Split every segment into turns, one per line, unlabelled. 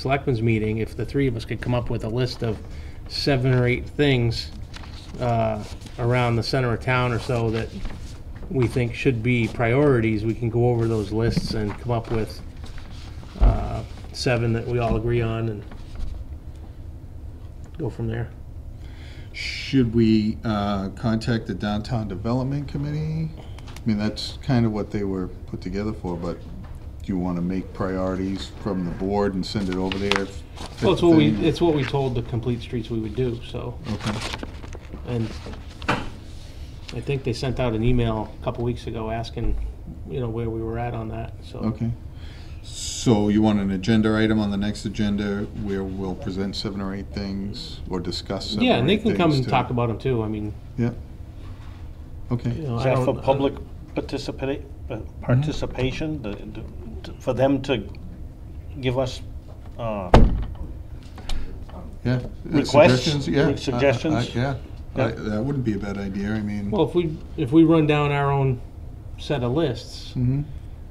selectmen's meeting, if the three of us could come up with a list of seven or eight things uh, around the center of town or so that we think should be priorities, we can go over those lists and come up with uh, seven that we all agree on and go from there.
Should we uh, contact the Downtown Development Committee? I mean, that's kind of what they were put together for, but do you want to make priorities from the board and send it over there?
Well, it's what we, it's what we told the Complete Streets we would do, so,
Okay.
and I think they sent out an email a couple weeks ago asking, you know, where we were at on that, so.
Okay. So you want an agenda item on the next agenda where we'll present seven or eight things or discuss seven or eight
Yeah, and they can come
things
and
to-
talk about them too, I mean, uh,
Yeah.
you
Okay.
know, Mm-hmm.
Is
I
that for
don't-
public participa- uh, participation, The- the- for them to give us uh,
Yeah. Uh,
Requests?
Suggestions, yeah. I- I-
Suggestions?
Yeah.
Yeah.
I- That wouldn't be a bad idea, I mean.
Well, if we, if we run down our own set of lists,
Mhm.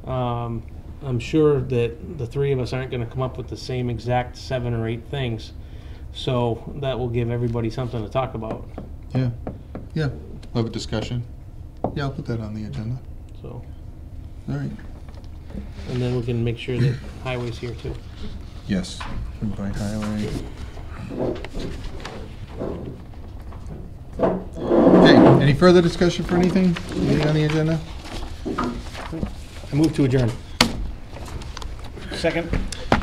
um, I'm sure that the three of us aren't gonna come up with the same exact seven or eight things. So that will give everybody something to talk about,
Yeah, yeah, we'll have a discussion. Yeah, I'll put that on the agenda.
so,
All right.
and then we can make sure that highway's here too.
Yes, invite highway. Okay, any further discussion for anything Anything on the agenda?
I move to adjourn.
second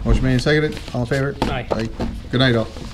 Motion made and seconded, all in favor?
Aye.
Good night, all.